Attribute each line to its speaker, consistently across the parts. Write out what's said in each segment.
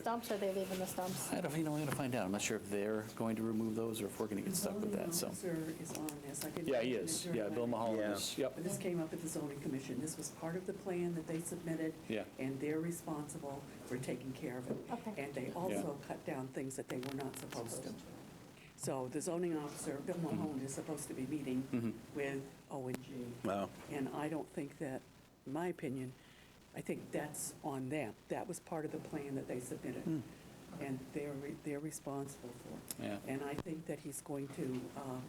Speaker 1: Stumps, are they leaving the stumps?
Speaker 2: I don't, you know, I'm going to find out. I'm not sure if they're going to remove those or if we're going to get stuck with that, so.
Speaker 3: The zoning officer is on this. I didn't
Speaker 2: Yeah, he
Speaker 3: mention it
Speaker 2: is.
Speaker 3: during
Speaker 2: Yeah,
Speaker 3: my-
Speaker 2: Bill Mahalan is, yep.
Speaker 3: But This came up at the zoning commission. This was part of the plan that they submitted.
Speaker 2: Yeah.
Speaker 3: And they're responsible for taking care of it.
Speaker 1: Okay.
Speaker 3: And they also cut down things that they were not supposed to. So the zoning officer, Bill
Speaker 2: Mm-hmm.
Speaker 3: Mahalan, is supposed to be meeting with O and G.
Speaker 4: Wow.
Speaker 3: And I don't think that, in my opinion, I think that's on them. That was part of the plan that they
Speaker 2: Hmm.
Speaker 3: submitted. And they're, re- they're responsible for. it.
Speaker 2: Yeah.
Speaker 3: And I think that he's going to, um,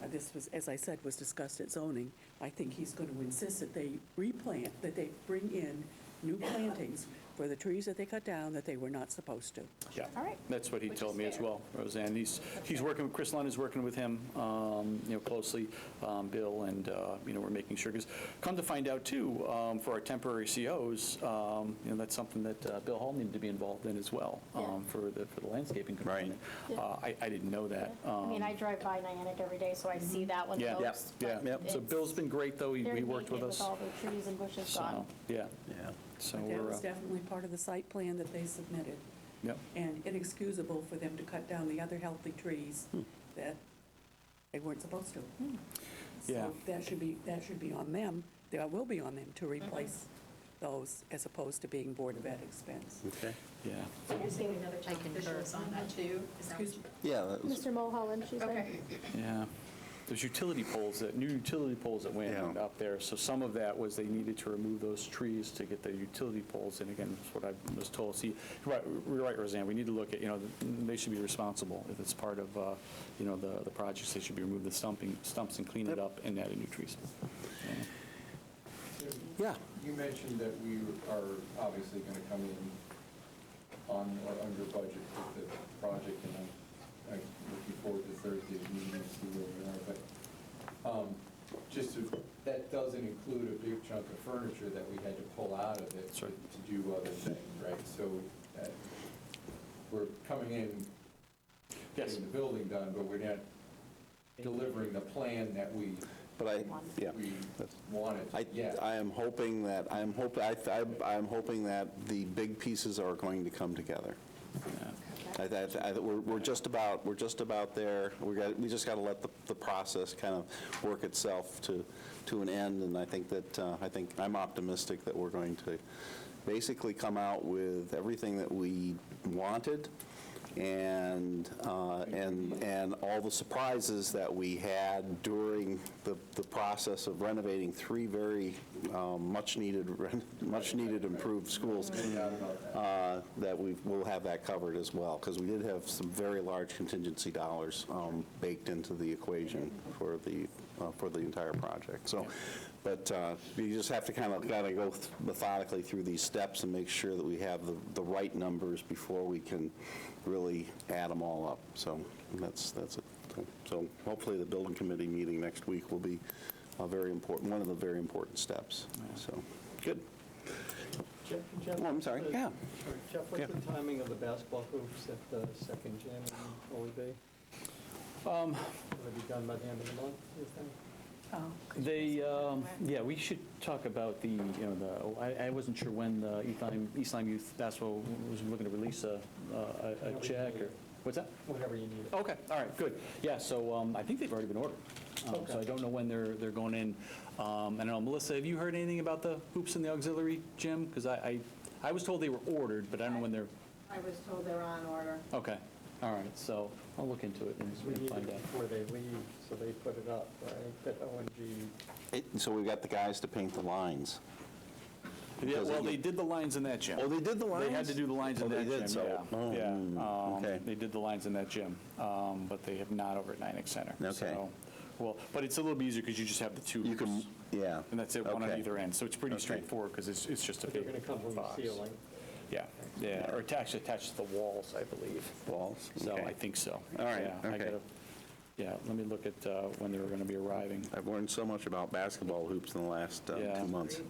Speaker 3: uh, this was, as I said, was discussed at zoning. I think he's going to insist that they replant, that they bring in new plantings for the trees that they cut down that they were not supposed to.
Speaker 2: Yeah.
Speaker 1: All right.
Speaker 2: That's what he
Speaker 1: Which
Speaker 2: told
Speaker 1: is
Speaker 2: me as
Speaker 1: fair.
Speaker 2: well, Roseanne. He's, he's working, Chris Lund is working with him, um, you know, closely, um, Bill, and, uh, you know, we're making sure, because come to find out too, um, for our temporary COs, um, you know, that's something that uh, Bill Hall needed to be involved in as well, um,
Speaker 1: Yeah.
Speaker 2: for the, for the landscaping component.
Speaker 1: Yeah.
Speaker 2: Uh, I, I didn't know that.
Speaker 1: I mean,
Speaker 2: Um,
Speaker 1: I drive by Niantic every day, so I see that one
Speaker 2: Mm-hmm. Yeah, yeah,
Speaker 1: closed.
Speaker 2: yeah.
Speaker 1: but
Speaker 2: So
Speaker 1: it's-
Speaker 2: Bill's been great, though. He
Speaker 1: they're
Speaker 2: he worked with
Speaker 1: leaving it
Speaker 2: us.
Speaker 1: all the trees and bushes gone.
Speaker 2: So, yeah,
Speaker 4: Yeah.
Speaker 2: so
Speaker 3: But that
Speaker 2: we're,
Speaker 3: was
Speaker 2: uh,
Speaker 3: definitely part of the site plan that they submitted.
Speaker 2: yep,
Speaker 3: and inexcusable for them to cut down the other healthy trees that they weren't supposed to.
Speaker 2: Yeah.
Speaker 3: So that should be, that should be on them, that will be on them to replace those as opposed to being Board of Ed expense.
Speaker 4: Okay.
Speaker 2: yeah.
Speaker 5: So you're seeing another town official is on that too? Is that what
Speaker 3: Excuse
Speaker 5: you-
Speaker 3: me.
Speaker 4: Yeah, that was,
Speaker 1: Mr. Mulholland, she said?
Speaker 5: Okay.
Speaker 2: Yeah. There's utility poles, that, new utility poles that went
Speaker 4: Yeah.
Speaker 2: up there. So some of that was they needed to remove those trees to get the utility poles. And again, that's what I was told. See, you're right, you're right, Roseanne, we need to look at, you know, they should be responsible if it's part of, uh, you know, the, the projects. They should be removing the stumping, stumps and clean it up and add new trees. Yeah.
Speaker 6: You mentioned that we are obviously going to come in on or under budget with the project, and I'm I'm looking forward to Thursday's meeting and see where we are, but um, just, to- that doesn't include a big chunk of furniture that we had to pull out of it
Speaker 2: That's
Speaker 6: to
Speaker 2: right.
Speaker 6: to do other things, right? So uh, we're coming in,
Speaker 2: Yes.
Speaker 6: getting the building done, but we're not delivering the plan that we,
Speaker 4: but I, yeah.
Speaker 6: we
Speaker 4: That's-
Speaker 6: wanted
Speaker 4: I,
Speaker 6: yet.
Speaker 4: I am hoping that, I'm hope, I, I- I'm hoping that the big pieces are going to come together. I, I, I- we're, we're just about, we're just about there. We got, we just got to let the, the process kind of work itself to, to an end. And I think that, uh, I think, I'm optimistic that we're going to basically come out with everything that we wanted and, uh, and, and all the surprises that we had during the, the process of renovating three very um, much-needed, ren- much-needed improved schools
Speaker 6: doubt about that.
Speaker 4: uh, that we will have that covered as well, because we did have some very large contingency dollars um, baked into the equation for the, uh, for the entire project. So, but uh, you just have to kind of, kind of go th- methodically through these steps and make sure that we have the, the right numbers before we can really add them all up. So that's, that's it. So hopefully the building committee meeting next week will be a very important, one of the very important steps. So, good.
Speaker 7: Jeff, Jeff,
Speaker 4: Oh, I'm sorry.
Speaker 7: uh,
Speaker 4: Yeah.
Speaker 7: sorry, Jeff,
Speaker 4: Yeah.
Speaker 7: what's the timing of the basketball hoops at the second gym in Holy Bay?
Speaker 2: Um,
Speaker 7: Will it be done by the end of the month, you think?
Speaker 2: They, um, yeah, we should talk about the, you know, the, oh, I I wasn't sure when the Eastline Eastline Youth Basketball was looking to release a- a a check or, what's that?
Speaker 7: Whenever you need it.
Speaker 2: Okay, all right, good. Yeah, so um, I think they've already been ordered. Um, So I
Speaker 7: Okay.
Speaker 2: don't know when they're, they're going in. Um, I don't know, Melissa, have you heard anything about the hoops in the auxiliary gym? Because I, I- I was told they were ordered, but I don't know when they're,
Speaker 5: I was told they're on order.
Speaker 2: okay, all right, so I'll look into it and
Speaker 7: We
Speaker 2: and
Speaker 7: need it
Speaker 2: find out.
Speaker 7: before they leave, so they put it up, right? That ONG,
Speaker 4: It- So we've got the guys to paint the lines.
Speaker 2: Yeah, well, they did the lines in that gym.
Speaker 4: Oh, they did the
Speaker 2: They had
Speaker 4: lines?
Speaker 2: to do the lines
Speaker 4: Oh,
Speaker 2: in
Speaker 4: they
Speaker 2: that
Speaker 4: did,
Speaker 2: gym,
Speaker 4: so-
Speaker 2: yeah.
Speaker 4: oh,
Speaker 2: Yeah,
Speaker 4: mm,
Speaker 2: um,
Speaker 4: okay.
Speaker 2: They did the lines in that gym, um, but they have not over at Nyack Center.
Speaker 4: Okay.
Speaker 2: So, Well, but it's a little bit easier because you just have the two
Speaker 4: You can,
Speaker 2: roofs.
Speaker 4: yeah.
Speaker 2: And that's it, one on
Speaker 4: Okay.
Speaker 2: either end, so it's pretty
Speaker 4: Okay.
Speaker 2: straightforward because it's, it's just a
Speaker 7: but they're
Speaker 2: big
Speaker 7: going to come from the
Speaker 2: box.
Speaker 7: ceiling.
Speaker 2: Yeah, yeah, or attached, attached to the walls, I believe.
Speaker 4: Walls?
Speaker 2: So
Speaker 4: Okay.
Speaker 2: I think so.
Speaker 4: All right,
Speaker 2: Yeah, I
Speaker 4: okay.
Speaker 2: gotta- Yeah, let me look at uh, when they were going to be arriving.
Speaker 4: I've learned so much about basketball hoops in the last uh,
Speaker 2: Yeah.
Speaker 4: two months.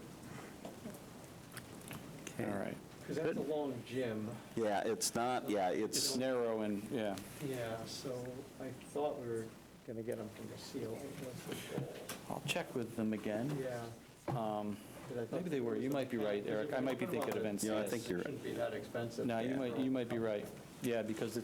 Speaker 2: All right.
Speaker 7: Because that's a long gym.
Speaker 4: Yeah, it's not, yeah,
Speaker 2: It's
Speaker 4: it's,
Speaker 2: narrow and, yeah,
Speaker 7: Yeah, so I thought we were going to get them from the ceiling. That's the goal.
Speaker 2: I'll check with them again.
Speaker 7: Yeah.
Speaker 2: Um,
Speaker 7: 'cause I thought
Speaker 2: Maybe they were, you might be right, Eric, I might be thinking of NCS.
Speaker 4: Yeah, I think you're right.
Speaker 7: Shouldn't be that expensive.
Speaker 2: No, you might, you might be right, yeah, because